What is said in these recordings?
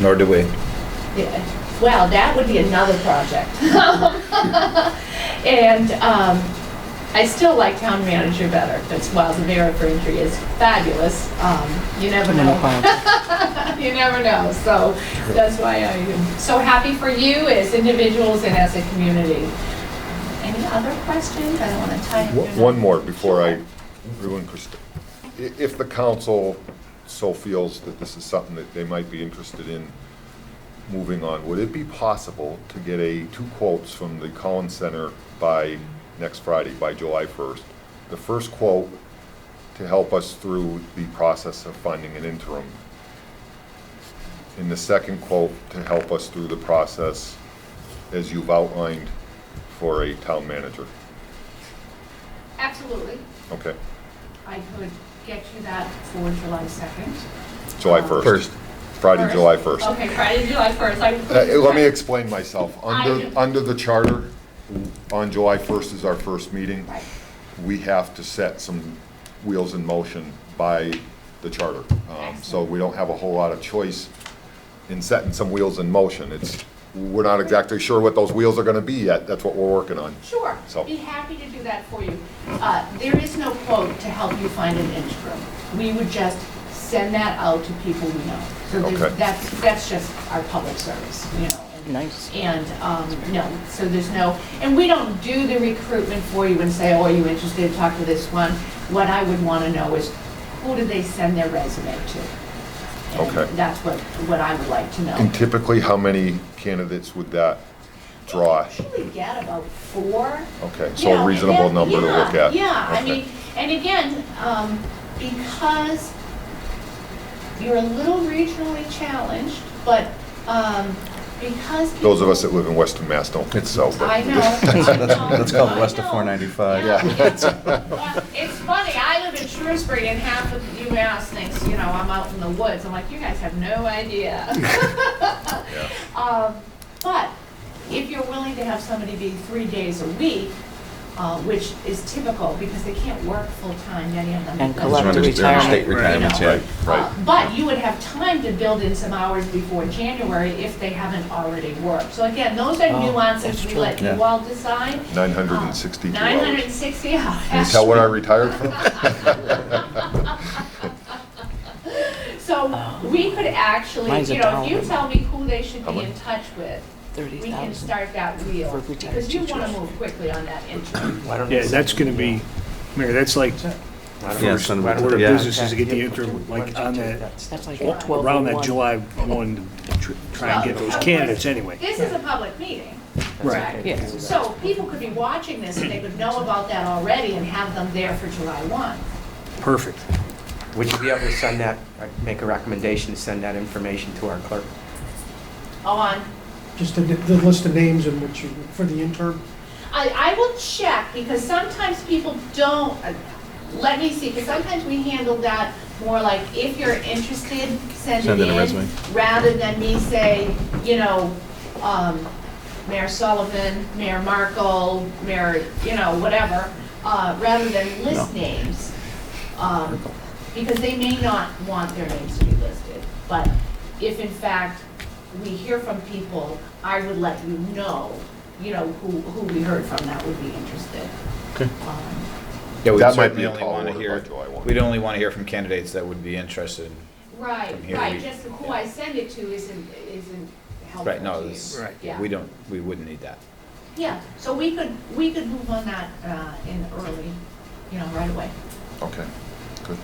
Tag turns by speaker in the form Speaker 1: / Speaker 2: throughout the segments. Speaker 1: nor do we.
Speaker 2: Yeah, Well, that would be another project. And um, I still like town manager better, because while the Vera Braintree is fabulous, um, you never know. You never know, so that's why I am so happy for you as individuals and as a community. Any other questions? I don't want to tie.
Speaker 3: One one more before I ruin Christi- i If the council so feels that this is something that they might be interested in moving on, would it be possible to get a, two quotes from the Collins Center by next Friday, by July 1st? The first quote to help us through the process of finding an interim. And the second quote to help us through the process, as you've outlined, for a town manager.
Speaker 2: Absolutely.
Speaker 3: Okay,
Speaker 2: I could get you that for July 2nd.
Speaker 3: July 1st.
Speaker 1: First.
Speaker 3: Friday, July 1st.
Speaker 2: Okay, Friday, July 1st.
Speaker 3: Uh,
Speaker 2: I-
Speaker 3: Let me explain myself.
Speaker 2: I-
Speaker 3: Under, under the charter, on July 1st is our first meeting.
Speaker 2: Right.
Speaker 3: We have to set some wheels in motion by the charter. Um, So we don't have a whole lot of choice in setting some wheels in motion. It's, we're not exactly sure what those wheels are going to be yet. That's what we're working on.
Speaker 2: Sure,
Speaker 3: So-
Speaker 2: be happy to do that for you. Uh, There is no quote to help you find an interim. We would just send that out to people we know. So there's-
Speaker 3: Okay.
Speaker 2: that's, that's just our public service, you know. and-
Speaker 4: Nice.
Speaker 2: And, um, no, so there's no, and we don't do the recruitment for you and say, oh, are you interested, talk to this one. What I would want to know is, who did they send their resume to? And
Speaker 3: Okay.
Speaker 2: That's what, what I would like to know.
Speaker 3: And typically, how many candidates would that draw?
Speaker 2: Usually get about four.
Speaker 3: Okay,
Speaker 2: You
Speaker 3: so
Speaker 2: know,
Speaker 3: a
Speaker 2: and
Speaker 3: reasonable
Speaker 2: then-
Speaker 3: number to look
Speaker 2: yeah,
Speaker 3: at.
Speaker 2: Yeah, I
Speaker 3: Okay.
Speaker 2: mean, and again, um, because you're a little regionally challenged, but, um, because.
Speaker 3: Those of
Speaker 2: people-
Speaker 3: us that live in Western Mass don't get so. but-
Speaker 2: I know.
Speaker 1: That's called west of
Speaker 2: I know.
Speaker 1: 495.
Speaker 2: Yeah,
Speaker 3: Uh, Yeah.
Speaker 2: it's- well, It's funny, I live in Shrewsbury and half of UMass thinks, you know, I'm out in the woods. I'm like, you guys have no idea.
Speaker 3: Yeah.
Speaker 2: Um, But if you're willing to have somebody be three days a week, uh, which is typical because they can't work full-time, many of them.
Speaker 4: And
Speaker 2: because-
Speaker 4: collect the
Speaker 1: They're on State
Speaker 4: retirement.
Speaker 1: retirements,
Speaker 2: You know.
Speaker 1: yeah.
Speaker 3: Right.
Speaker 2: Uh, But you would have time to build in some hours before January if they haven't already worked. So again, those are
Speaker 4: Oh,
Speaker 2: nuances
Speaker 4: that's
Speaker 2: we
Speaker 4: true.
Speaker 2: let
Speaker 1: Yeah.
Speaker 2: you all decide.
Speaker 3: 962 hours.
Speaker 2: Nine hundred and sixty
Speaker 3: Can you
Speaker 2: hours.
Speaker 3: tell when I retired from?
Speaker 2: So we could actually,
Speaker 4: Mine's a
Speaker 2: you know, if you
Speaker 4: dollar.
Speaker 2: tell me who they should
Speaker 3: How
Speaker 2: be
Speaker 3: much?
Speaker 2: in touch with, we can
Speaker 4: 30,000.
Speaker 2: start that wheel.
Speaker 4: For retired
Speaker 2: Because you want to
Speaker 4: teachers.
Speaker 2: move quickly on that interim.
Speaker 5: Yeah, that's going to be, Mayor, that's like
Speaker 1: Yeah,
Speaker 5: first
Speaker 1: son of a-
Speaker 5: order of
Speaker 1: yeah.
Speaker 5: business is to get the interim, like on that,
Speaker 4: That's like a 12
Speaker 5: around that
Speaker 4: one.
Speaker 5: July 1, to tr- try and get
Speaker 2: Well,
Speaker 5: those
Speaker 2: of course,
Speaker 5: candidates anyway.
Speaker 2: This is a public meeting.
Speaker 5: Right.
Speaker 4: Yes.
Speaker 2: So people could be watching this and they would know about that already and have them there for July one.
Speaker 5: Perfect.
Speaker 6: Would you be able to send that, make a recommendation to send that information to our clerk?
Speaker 2: On,
Speaker 7: Just the, the list of names and what you, for the interim?
Speaker 2: I, I will check because sometimes people don't, uh, let me see, because sometimes we handle that more like if you're interested, send it
Speaker 1: Send in a
Speaker 2: in.
Speaker 1: resume.
Speaker 2: Rather than me say, you know, um, Mayor Sullivan, Mayor Markle, Mayor, you know, whatever, uh, rather than list names. um, Because they may not want their names to be listed. But if in fact we hear from people, I would let you know, you know, who, who we heard from that would be interested.
Speaker 1: Okay.
Speaker 2: Um,
Speaker 1: Yeah, we'd
Speaker 3: That might
Speaker 1: certainly
Speaker 3: be a
Speaker 1: only
Speaker 3: tall
Speaker 1: want to
Speaker 3: order
Speaker 1: hear,
Speaker 3: by July one.
Speaker 1: we'd only want to hear from candidates that would be interested.
Speaker 2: Right,
Speaker 1: From here,
Speaker 2: right,
Speaker 1: we-
Speaker 2: just who I send it to isn't, isn't helpful
Speaker 1: Right, no,
Speaker 2: to you.
Speaker 1: this-
Speaker 5: Right.
Speaker 2: Yeah.
Speaker 1: we don't, we wouldn't need that.
Speaker 2: Yeah, so we could, we could move on that uh, in early, you know, right away.
Speaker 3: Okay, good.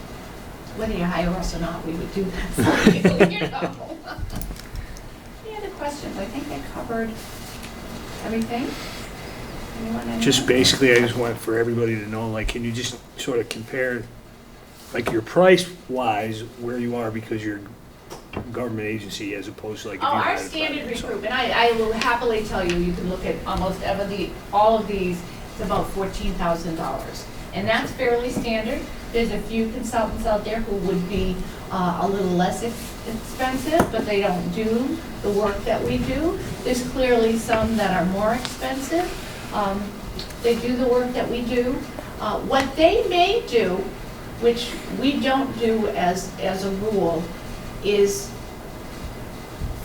Speaker 2: Whether you hire us or not, we would do that for you, you know. Any other questions? I think I covered everything. Anyone? anyone?
Speaker 5: Just basically, I just want for everybody to know, like, can you just sort of compare, like, your price-wise, where you are because you're a government agency as opposed to like. if
Speaker 2: Oh,
Speaker 5: you
Speaker 2: our
Speaker 5: hired a
Speaker 2: standard
Speaker 5: private, so-
Speaker 2: recruitment, I, I will happily tell you, you can look at almost ever the, all of these, it's about fourteen thousand dollars. And that's fairly standard. There's a few consultants out there who would be, uh, a little less ex- expensive, but they don't do the work that we do. There's clearly some that are more expensive. Um, they do the work that we do. Uh, what they may do, which we don't do as, as a rule, is